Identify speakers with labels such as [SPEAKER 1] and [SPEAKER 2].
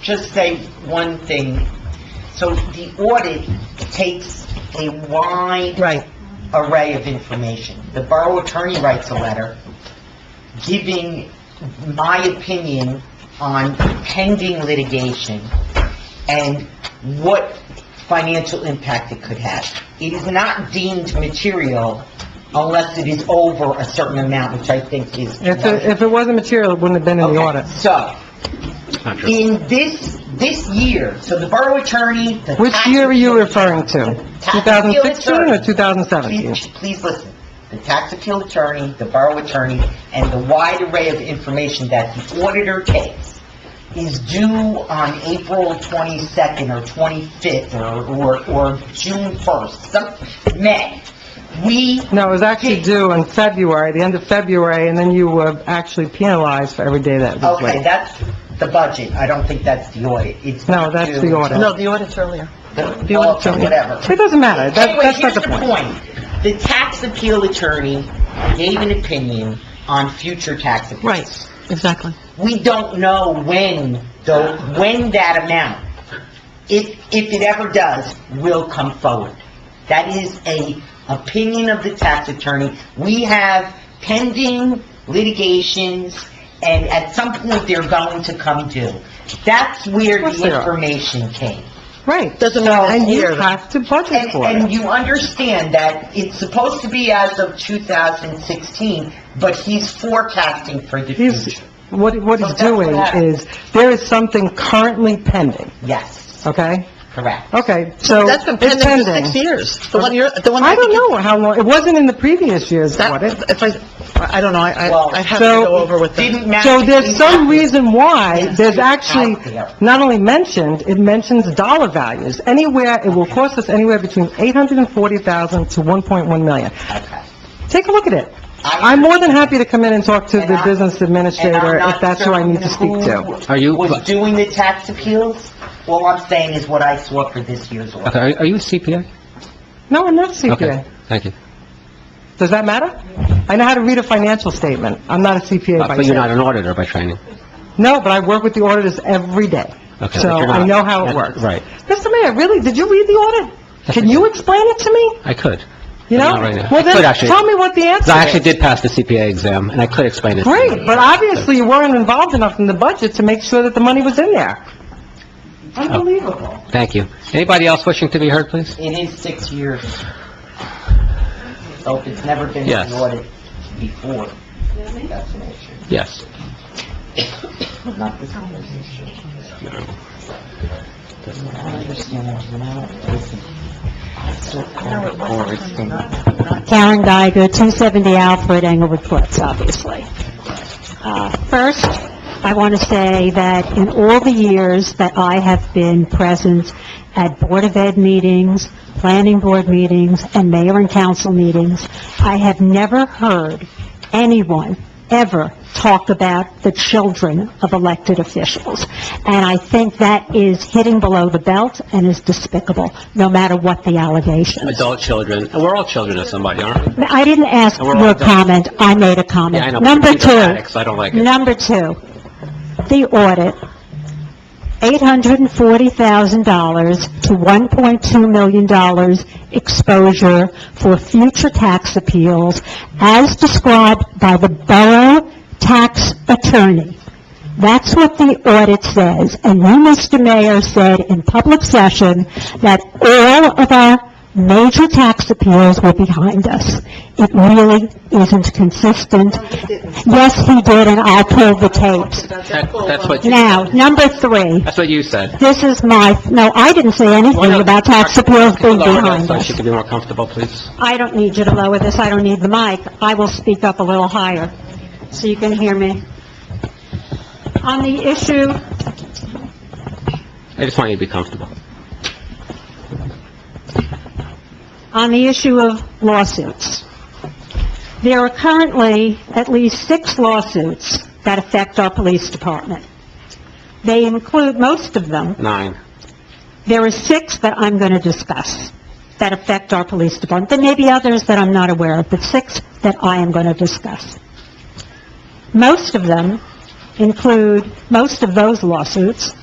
[SPEAKER 1] just say one thing. So the audit takes a wide
[SPEAKER 2] Right,
[SPEAKER 1] array of information. The borough attorney writes a letter giving my opinion on pending litigation and what financial impact it could have. It is not deemed material unless it is over a certain amount, which I think is...
[SPEAKER 2] if, it- if it wasn't material, it wouldn't have been in the
[SPEAKER 1] Okay,
[SPEAKER 2] audit.
[SPEAKER 1] So, in this, this year, so the borough attorney, the
[SPEAKER 2] Which
[SPEAKER 1] tax-
[SPEAKER 2] year are you referring to? 2016 or
[SPEAKER 1] Please
[SPEAKER 2] 2017?
[SPEAKER 1] please listen. The tax appeal attorney, the borough attorney, and the wide array of information that the auditor takes is due on April 22nd or 25th or, or, or June 1st, some, May. We
[SPEAKER 2] No, it was actually due in February, the end of February, and then you were actually penalized for every day that it was
[SPEAKER 1] Okay,
[SPEAKER 2] late.
[SPEAKER 1] that's the budget. I don't think that's the audit. It's
[SPEAKER 2] No,
[SPEAKER 1] not
[SPEAKER 2] that's
[SPEAKER 1] due until-
[SPEAKER 2] the audit. No,
[SPEAKER 3] the audit's earlier.
[SPEAKER 1] The audit, whatever.
[SPEAKER 2] It doesn't matter, that,
[SPEAKER 1] Anyway,
[SPEAKER 2] that's
[SPEAKER 1] here's
[SPEAKER 2] not
[SPEAKER 1] the
[SPEAKER 2] the point.
[SPEAKER 1] point. The tax appeal attorney gave an opinion on future tax appeals.
[SPEAKER 3] Right, exactly.
[SPEAKER 1] We don't know when, though, when that amount, if, if it ever does, will come forward. That is a opinion of the tax attorney. We have pending litigations, and at some point, they're going to come due. That's where
[SPEAKER 2] Of course they
[SPEAKER 1] the
[SPEAKER 2] are.
[SPEAKER 1] information came.
[SPEAKER 2] Right.
[SPEAKER 3] Doesn't matter
[SPEAKER 2] And you
[SPEAKER 3] here.
[SPEAKER 2] have to budget
[SPEAKER 1] And,
[SPEAKER 2] for it.
[SPEAKER 1] and you understand that it's supposed to be as of 2016, but he's forecasting for the
[SPEAKER 2] He's-
[SPEAKER 1] future.
[SPEAKER 2] What, what
[SPEAKER 1] So
[SPEAKER 2] he's
[SPEAKER 1] that's what
[SPEAKER 2] doing
[SPEAKER 1] happened.
[SPEAKER 2] is, there is something currently pending,
[SPEAKER 1] Yes,
[SPEAKER 2] okay?
[SPEAKER 1] correct.
[SPEAKER 2] Okay, so
[SPEAKER 3] That's been
[SPEAKER 2] it's
[SPEAKER 3] pending for
[SPEAKER 2] pending.
[SPEAKER 3] six years. The one you're, the one.
[SPEAKER 2] I don't
[SPEAKER 3] think you-
[SPEAKER 2] know how long, it wasn't in the previous year's
[SPEAKER 3] That,
[SPEAKER 2] audit.
[SPEAKER 3] if I, I don't know, I,
[SPEAKER 1] Well,
[SPEAKER 3] I- I'd have to
[SPEAKER 2] so
[SPEAKER 3] go over with them.
[SPEAKER 1] Didn't matter.
[SPEAKER 2] So there's some reason why
[SPEAKER 1] Yes,
[SPEAKER 2] there's
[SPEAKER 1] it's
[SPEAKER 2] actually
[SPEAKER 1] out there.
[SPEAKER 2] not only mentioned, it mentions dollar values. Anywhere, it will cost us anywhere between 840,000 to 1.1 million.
[SPEAKER 1] Okay.
[SPEAKER 2] Take a look at it.
[SPEAKER 1] I-
[SPEAKER 2] I'm more than happy to come in and talk to
[SPEAKER 1] And
[SPEAKER 2] the
[SPEAKER 1] I-
[SPEAKER 2] business
[SPEAKER 1] and I'm
[SPEAKER 2] administrator
[SPEAKER 1] not
[SPEAKER 2] if that's who I need to speak
[SPEAKER 1] certain
[SPEAKER 2] to.
[SPEAKER 1] who
[SPEAKER 4] Are you-
[SPEAKER 1] Was doing the tax appeals? All I'm saying is what I saw for this year's
[SPEAKER 4] Okay,
[SPEAKER 1] order.
[SPEAKER 4] are are you a CPA?
[SPEAKER 2] No, I'm not a
[SPEAKER 4] Okay,
[SPEAKER 2] CPA.
[SPEAKER 4] thank you.
[SPEAKER 2] Does that matter? I know how to read a financial statement. I'm not a CPA by
[SPEAKER 4] Uh, But you're not
[SPEAKER 2] trade.
[SPEAKER 4] an auditor by training.
[SPEAKER 2] No, but I work with the auditors every day.
[SPEAKER 4] Okay,
[SPEAKER 2] So
[SPEAKER 4] but you're
[SPEAKER 2] I
[SPEAKER 4] not-
[SPEAKER 2] know how it
[SPEAKER 4] Yeah,
[SPEAKER 2] works.
[SPEAKER 4] right.
[SPEAKER 2] Mr. Mayor, really, did you read the audit? Can you explain it to me?
[SPEAKER 4] I could.
[SPEAKER 2] You know?
[SPEAKER 4] Not right now.
[SPEAKER 2] Well,
[SPEAKER 4] I could
[SPEAKER 2] then,
[SPEAKER 4] actually.
[SPEAKER 2] tell me what the answer
[SPEAKER 4] 'Cause I actually
[SPEAKER 2] is.
[SPEAKER 4] did pass the CPA exam, and I could explain it. to you.
[SPEAKER 2] Great, but obviously you weren't involved enough in the budget to make sure that the money was in there.
[SPEAKER 1] Unbelievable.
[SPEAKER 4] Thank you. Anybody else wishing to be heard, please?
[SPEAKER 1] It is six years. So if it's never been
[SPEAKER 4] Yes.
[SPEAKER 1] audited before, that's an issue.
[SPEAKER 4] Yes.
[SPEAKER 1] Not this one, it's an issue. I understand, you know, listen. I saw Cora Ford's thing.
[SPEAKER 5] Karen Geiger, 270 Alfred Englewood Cliffs, obviously. Uh, First, I want to say that in all the years that I have been present at Board of Ed meetings, planning board meetings, and mayor and council meetings, I have never heard anyone ever talk about the children of elected officials. And I think that is hitting below the belt and is despicable, no matter what the allegations.
[SPEAKER 4] Adult children, and we're all children of somebody, aren't we?
[SPEAKER 5] I didn't ask
[SPEAKER 4] And we're all
[SPEAKER 5] your
[SPEAKER 4] done.
[SPEAKER 5] comment, I made a
[SPEAKER 4] Yeah, I know,
[SPEAKER 5] comment.
[SPEAKER 4] but
[SPEAKER 5] Number
[SPEAKER 4] it's
[SPEAKER 5] two,
[SPEAKER 4] dramatic, so I don't like it.
[SPEAKER 5] number two, the audit, $840,000 to $1.2 million exposure for future tax appeals as described by the borough tax attorney. That's what the audit says, and you, Mr. Mayor, said in public session that all of our major tax appeals were behind us. It really isn't consistent. Yes, he did, and I pulled the tapes.
[SPEAKER 4] That- That's what, you-
[SPEAKER 5] Now, number three,
[SPEAKER 4] that's what you said.
[SPEAKER 5] this is my, no, I didn't say anything about tax appeals being
[SPEAKER 4] Hold on,
[SPEAKER 5] behind
[SPEAKER 4] So
[SPEAKER 5] us.
[SPEAKER 4] she could be more comfortable, please.
[SPEAKER 5] I don't need you to lower this, I don't need the mic. I will speak up a little higher, so you can hear me. On the issue
[SPEAKER 4] I just want you to be comfortable.
[SPEAKER 5] on the issue of lawsuits. There are currently at least six lawsuits that affect our police department. They include, most of them,
[SPEAKER 4] Nine.
[SPEAKER 5] there are six that I'm going to discuss that affect our police department. There may be others that I'm not aware of, but six that I am going to discuss. Most of them include, most of those lawsuits